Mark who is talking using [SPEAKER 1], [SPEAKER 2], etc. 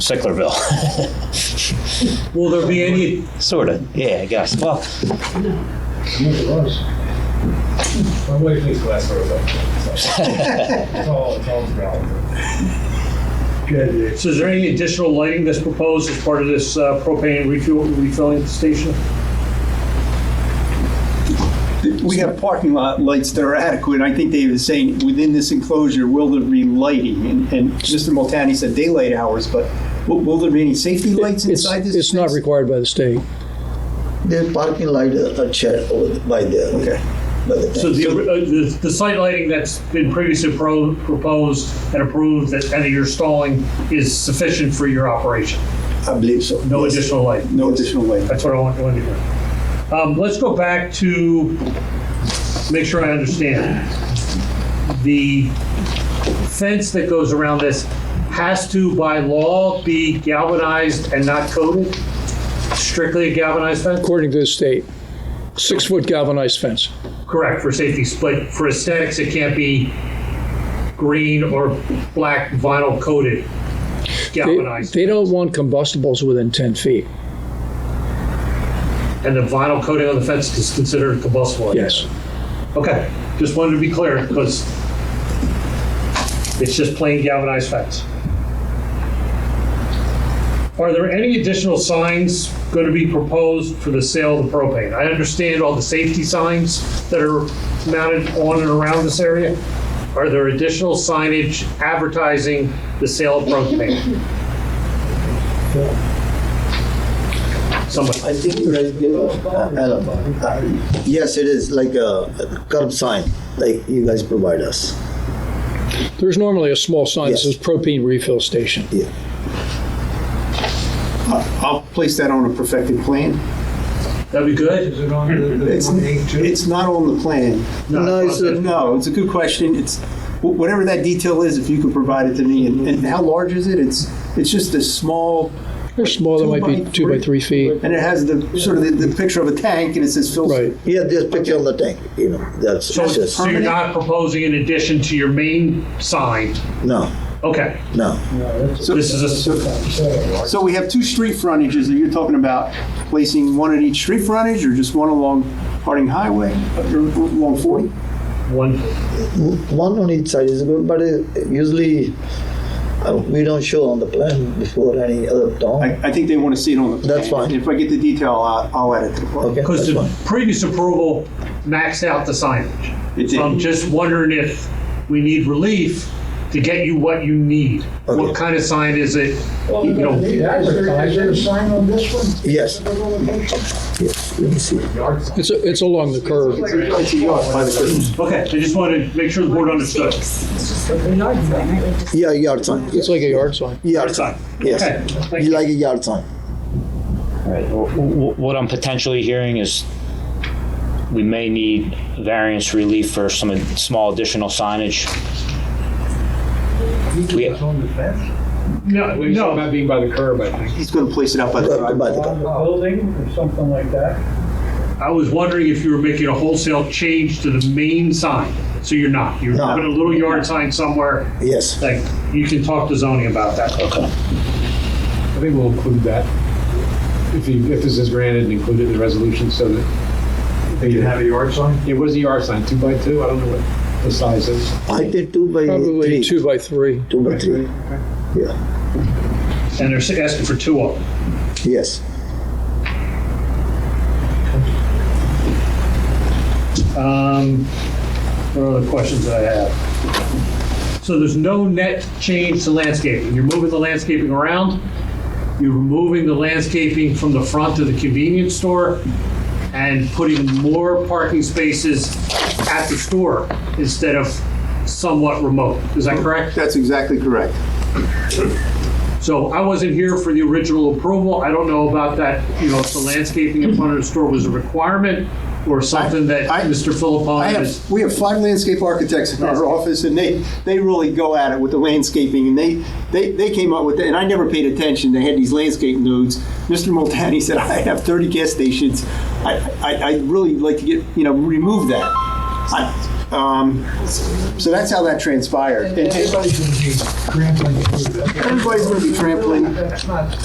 [SPEAKER 1] Sicklerville.
[SPEAKER 2] Will there be any,
[SPEAKER 1] sort of. Yeah, I guess. Well,
[SPEAKER 3] It was. I'm waiting for this glass for a It's all, it's all ground.
[SPEAKER 2] so is there any additional lighting that's proposed as part of this uh, propane refuel, refilling station?
[SPEAKER 4] We have parking lot lights that are adequate. I think David is saying, within this enclosure, will there be lighting? And- And Mr. Multani said daylight hours, but will- will there be any safety lights
[SPEAKER 5] It's,
[SPEAKER 4] inside this?
[SPEAKER 5] it's not
[SPEAKER 4] space?
[SPEAKER 5] required by the state.
[SPEAKER 6] The parking light are shared over by the,
[SPEAKER 4] Okay.
[SPEAKER 6] by the
[SPEAKER 2] So
[SPEAKER 6] tank.
[SPEAKER 2] the, uh, the, the site lighting that's been previously pro- proposed and approved that, and that you're installing is sufficient for your operation?
[SPEAKER 6] I believe so.
[SPEAKER 2] No
[SPEAKER 6] Yes.
[SPEAKER 2] additional lighting?
[SPEAKER 4] No additional lighting.
[SPEAKER 2] That's what I want wanted to hear. Um, let's go back to, make sure I understand. The fence that goes around this has to, by law, be galvanized and not coated? Strictly a galvanized fence?
[SPEAKER 5] According to the state, six-foot galvanized fence.
[SPEAKER 2] Correct, for safety, but for aesthetics, it can't be green or black vinyl coated
[SPEAKER 5] They,
[SPEAKER 2] galvanized.
[SPEAKER 5] they don't want combustibles within 10 feet.
[SPEAKER 2] And the vinyl coating on the fence is considered combustible? I guess.
[SPEAKER 5] Yes.
[SPEAKER 2] Okay, just wanted to be clear, because it's just plain galvanized fence. Are there any additional signs going to be proposed for the sale of the propane? I understand all the safety signs that are mounted on and around this area. Are there additional signage advertising the sale of propane? Somebody,
[SPEAKER 6] I think you guys give, uh, I don't know. Uh, Yes, it is like a curb sign, like you guys provide us.
[SPEAKER 5] There's normally a small sign that
[SPEAKER 6] Yes.
[SPEAKER 5] says propane refill station.
[SPEAKER 4] I'll place that on a perfected plan.
[SPEAKER 2] that'd be good?
[SPEAKER 3] Is it on the, the
[SPEAKER 4] It's,
[SPEAKER 3] eight two?
[SPEAKER 4] it's not on the plan.
[SPEAKER 6] No, it's a-
[SPEAKER 4] No, it's a good question. It's, wh- whatever that detail is, if you could provide it to me, and and how large is it? It's, it's just a small,
[SPEAKER 5] They're small, they might be two by three feet.
[SPEAKER 4] and it has the, sort of the, the picture of a tank, and it says fill.
[SPEAKER 5] Right.
[SPEAKER 6] Yeah, there's picture on the tank, you know, that's
[SPEAKER 2] So
[SPEAKER 6] just,
[SPEAKER 2] so you're not proposing in addition to your main sign?
[SPEAKER 6] no,
[SPEAKER 2] Okay,
[SPEAKER 6] no.
[SPEAKER 2] this is a,
[SPEAKER 4] So we have two street frontages that you're talking about, placing one at each street frontage or just one along Harding Highway, or along 40?
[SPEAKER 2] one,
[SPEAKER 6] One on each side is good, but uh, usually uh, we don't show on the plan before any other town.
[SPEAKER 4] I, I think they want to see it on the plan.
[SPEAKER 6] That's fine.
[SPEAKER 4] If I get the detail, I'll, I'll add it to the plan.
[SPEAKER 6] Okay,
[SPEAKER 2] because
[SPEAKER 6] that's
[SPEAKER 2] the
[SPEAKER 6] fine.
[SPEAKER 2] previous approval maxed out the signage.
[SPEAKER 4] It
[SPEAKER 2] So I'm
[SPEAKER 4] did.
[SPEAKER 2] just wondering if we need relief to get you what you need. What
[SPEAKER 6] Okay.
[SPEAKER 2] kind of sign is it? You know,
[SPEAKER 3] Is there- is there a sign on this one?
[SPEAKER 6] Yes, yes, let me see.
[SPEAKER 5] It's, a- it's along the curve.
[SPEAKER 4] It's a yard by the curtains.
[SPEAKER 2] Okay, I just wanted to make sure the board understood.
[SPEAKER 6] Yeah, yard sign,
[SPEAKER 5] It's like a yard sign.
[SPEAKER 6] yard sign,
[SPEAKER 2] Sign.
[SPEAKER 6] yes.
[SPEAKER 2] Okay, thank you.
[SPEAKER 6] You like a yard sign?
[SPEAKER 1] Right. W- w- What I'm potentially hearing is we may need variance relief for some ad- small additional signage. We-
[SPEAKER 3] on the fence?
[SPEAKER 2] No, no,
[SPEAKER 7] About being by the curb, I think.
[SPEAKER 4] He's going to place it out by the
[SPEAKER 6] By
[SPEAKER 4] driveway.
[SPEAKER 6] the
[SPEAKER 3] On the building or something like that?
[SPEAKER 2] I was wondering if you were making a wholesale change to the main sign. So you're not, you're
[SPEAKER 6] No.
[SPEAKER 2] putting a little yard sign somewhere,
[SPEAKER 6] Yes,
[SPEAKER 2] like, you can talk to zoning about that.
[SPEAKER 1] Okay.
[SPEAKER 7] I think we'll include that, if you, if this is granted, and include it in the resolution so that. They
[SPEAKER 3] You have a yard sign?
[SPEAKER 7] Yeah, what is the yard sign, two by two? I don't know what the size is.
[SPEAKER 6] I did two by
[SPEAKER 5] Probably
[SPEAKER 6] three,
[SPEAKER 5] two by three.
[SPEAKER 6] two by three,
[SPEAKER 2] And they're asking for two of them.
[SPEAKER 6] yes.
[SPEAKER 2] Um, What other questions that I have? So there's no net change to landscaping. You're moving the landscaping around. You're removing the landscaping from the front of the convenience store and putting more parking spaces at the store instead of somewhat remote. Is that correct?
[SPEAKER 4] That's exactly correct.
[SPEAKER 2] So I wasn't here for the original approval. I don't know about that, you know, if the landscaping in front of the store was a requirement or something that
[SPEAKER 4] I- I-
[SPEAKER 2] Mr.
[SPEAKER 4] I
[SPEAKER 2] Philippon is.
[SPEAKER 4] have, we have five landscape architects in our office, and they, they really go at it with the landscaping, and they, they, they came up with it, and I never paid attention, they had these landscape nodes. Mr. Multani said, I have thirty gas stations, I, I, I'd really like to get, you know, remove that. I, Um, So that's how that transpired. And
[SPEAKER 3] Everybody's gonna be trampling.
[SPEAKER 4] Everybody's gonna be trampling.
[SPEAKER 3] That's not